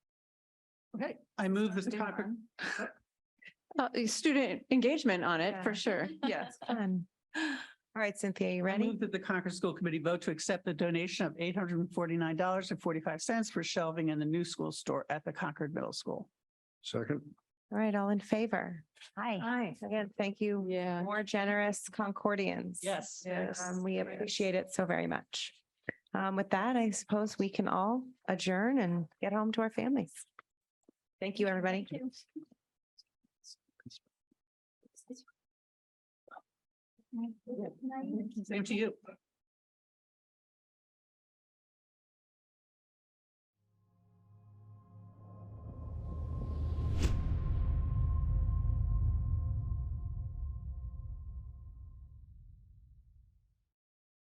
I move that the Student Concord, run. Uh, student engagement on it Yeah. for sure. Yes. Fun. All right, Cynthia, you I ready? move that the Concord School Committee vote to accept the donation of eight hundred and forty-nine dollars and forty-five cents for shelving in the new school store at the Concord Middle School. Second, All right, all in favor? Hi. Aye. Again, thank you, Yeah. more generous Concordians. Yes. Yes. Um, we Yes. appreciate it so very much. Um, with that, I suppose we can all adjourn and get home to our families. Thank you, everybody. Same to you.